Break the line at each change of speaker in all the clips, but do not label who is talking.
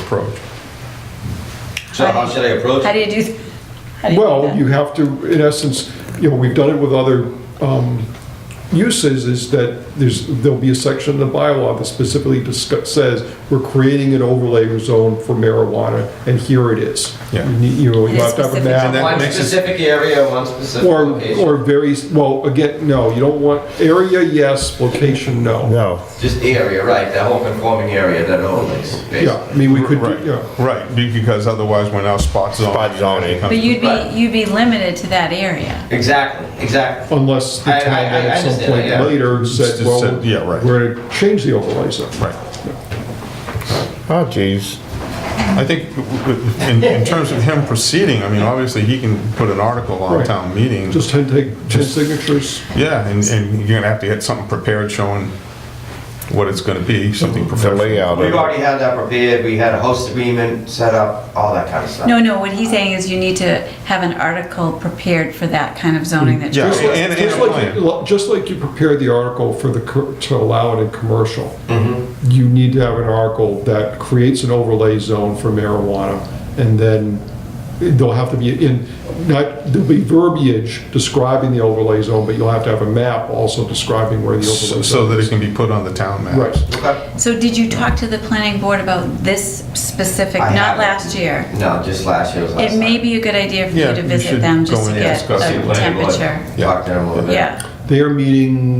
approach.
So how should I approach
How do
it?
you do, th- how do you do
Well,
that?
you have to, in essence, you know, we've done it with other um, uses, is that there's, there'll be a section in the bylaw that specifically discuss, says, we're creating an overlay zone for marijuana, and here it is.
Yeah.
You need- You know, you
It is
have to have a
specific.
map.
And that
One
makes it-
specific area, one specific
Or,
location.
or very, well, again, no, you don't want, area, yes, location, no.
No,
Just area, right, that whole conforming area that overlays,
Yeah,
basically.
I mean, we could,
right,
do- yeah.
right, be- because otherwise we're now spot zoning.
Spot zoning.
But you'd
Right.
be, you'd be limited to that area.
Exactly, exactly.
Unless the
I- I-
town
I
at some
understand,
point
yeah.
later said,
Just
well,
said, yeah, right.
we're gonna change the overlay zone.
Right.
Oh, jeez.
I think w- w- in, in terms of him proceeding, I mean, obviously he can put an article on
Right.
town meeting.
Just ten, take, ten signatures.
Yeah, and, and you're gonna have to get something prepared showing what it's gonna be, something
The
professional.
layout
We've
of it.
already had that prepared, we had a host agreement set up, all that kind of stuff.
No, no, what he's saying is you need to have an article prepared for that kind of zoning that
Yeah.
you're,
Just like-
and- and
just
a
like- Just like you prepared the article for the, co- to allow it in commercial,
Mm-hmm.
you need to have an article that creates an overlay zone for marijuana, and then there'll have to be, in, not, there'll be verbiage describing the overlay zone, but you'll have to have a map also describing where the
So
overlay
so
zone
that it
is.
can be put on the town map.
Right.
Okay.
so did you talk to the planning board about this specific,
I
not
haven't.
last year?
No, just last year was last.
It may be a good idea for
Yeah,
you to
you
visit
should
them
go
just to
in and
get
discuss
See the
a
planning board,
temperature.
Talk to them a little bit.
Yeah,
They are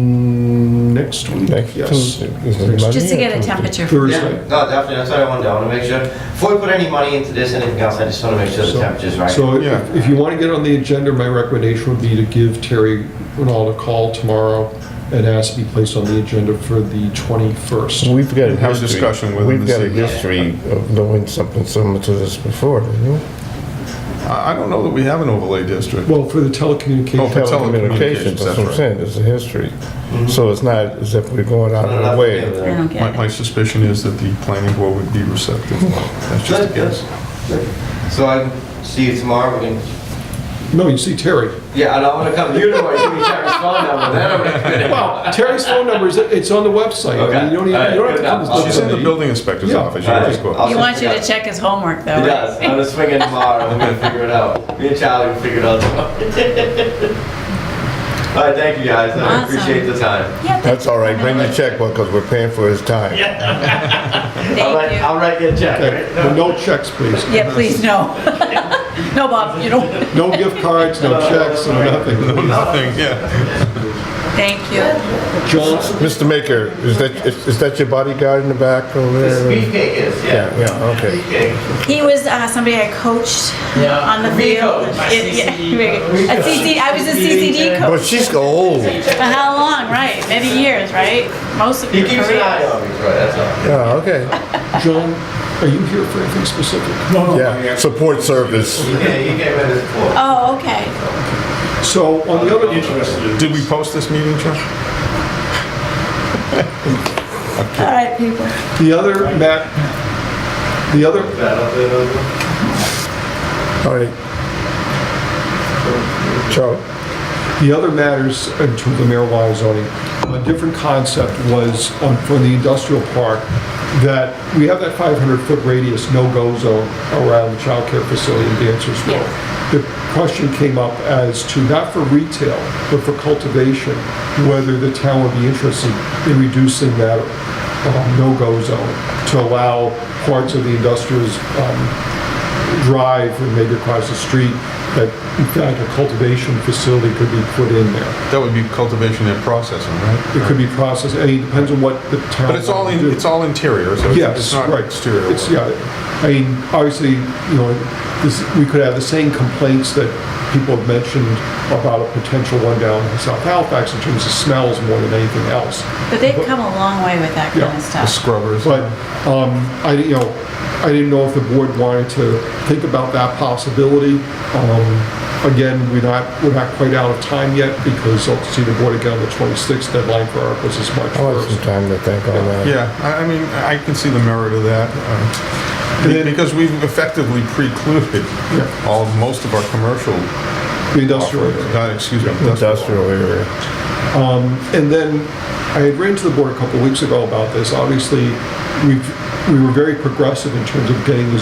meeting next week,
Next
yes.
Tuesday. Is it
Next
Monday
just to
or
get a
Tuesday?
temperature.
Yeah,
Thursday.
no, definitely, that's what I wanted, to- I want to make sure, before we put any money into this, anything else, I just want to make sure the
So-
temperature's right.
So if-
Yeah.
if you want to get on the agenda, my recommendation would be to give Terry Renaud a call tomorrow and ask to be placed on the agenda for the 21st.
We've got a
Have a
history.
discussion with them
We've
to
got a
see.
history of doing something similar to this before, didn't we?
I, I don't know that we have an overlay district.
Well, for the telecommunications,
For telecommunications,
Oh, Telecommunications, that's what I'm
that's
saying, there's a history. So it's not as if we're going out of
Nothing
our
to do
way.
with
I
that.
don't
My,
get
my
it.
suspicion is that the planning board would be receptive. That's just a
Good, good.
guess.
So I can see you tomorrow, we can,
no, you see Terry.
yeah, and I want to come to you tomorrow, you can check his phone number, then I'm gonna.
Well, Terry's phone number is, it's on the website. I mean, You don't even, you don't have to come to
Okay.
She's in the building inspector's
Yeah.
office, you can just go up.
He wants you to check his homework though,
He
right?
does, I'm gonna swing in tomorrow, we're gonna figure it out, me and Charlie will figure it out tomorrow. All right, thank you guys, I
Awesome.
appreciate the time.
Yeah,
That's all right, bring the
fine.
checkbook, because we're paying for his time.
I'll
Thank
write,
you.
I'll write you a check,
Okay,
right?
but No checks, please.
Yeah, please, no. No, Bob, you don't.
No gift cards, no checks, no nothing.
Nothing, yeah.
Thank you.
John,
Mr. Maker, is that, is is that your bodyguard in the back over
The speed
there?
cake is,
Yeah,
yeah.
yeah, okay.
Okay.
He was uh, somebody I coached
Yeah.
on the
We
field.
coached.
My
It- yeah,
CCD
we-
coach.
a CCD I was a CCD
Well,
coach
she's old.
for how long, right? Many years, right? Most of
He
your
keeps an eye
career.
on me, Troy, that's all.
Yeah, Oh, okay.
John, are you here for anything specific?
Yeah, support service.
He came, he came in as four.
Oh, okay.
So on the other,
Did we post this meeting, Chuck?
All right, people.
the other, Matt, the other
All right. Charlie?
The other matters in terms of marijuana zoning, a different concept was um, for the industrial park, that we have that 500-foot radius no-go zone around the childcare facility in Dancers Row. The question came up as to, not for retail, but for cultivation, whether the town would be interested in reducing that um, no-go zone to allow parts of the industrial um, drive and maybe across the street, that in fact a cultivation facility could be put in there.
That would be cultivation and processing, right?
It could be processed, I mean, it depends on what the town.
But it's all in,
wants to do.
it's all interior, so it's- it's
Yes,
not
right.
exterior.
It's, yeah, I mean, obviously, you know, this, we could have the same complaints that people have mentioned about a potential one down in South Halifax in terms of smells more than anything else.
But they've come a long way with that kind
Yeah.
of
The
stuff.
Scrubbers.
But um, I, didn't- you know, I didn't know if the board wanted to think about that possibility. Um, Again, we're not, we're not quite out of time yet because I'll see the board again on the 26th deadline for articles is March
Oh, I want some
1st.
time to think on that.
Yeah, I I mean, I can see the merit of that. uh,
And then-
Because we've effectively precluded all, most of our commercial,
The industrial area.
uh, excuse me, industrial.
Industrial area.
And then I had ran to the board a couple of weeks ago about this. Obviously, we've we were very progressive in terms of getting the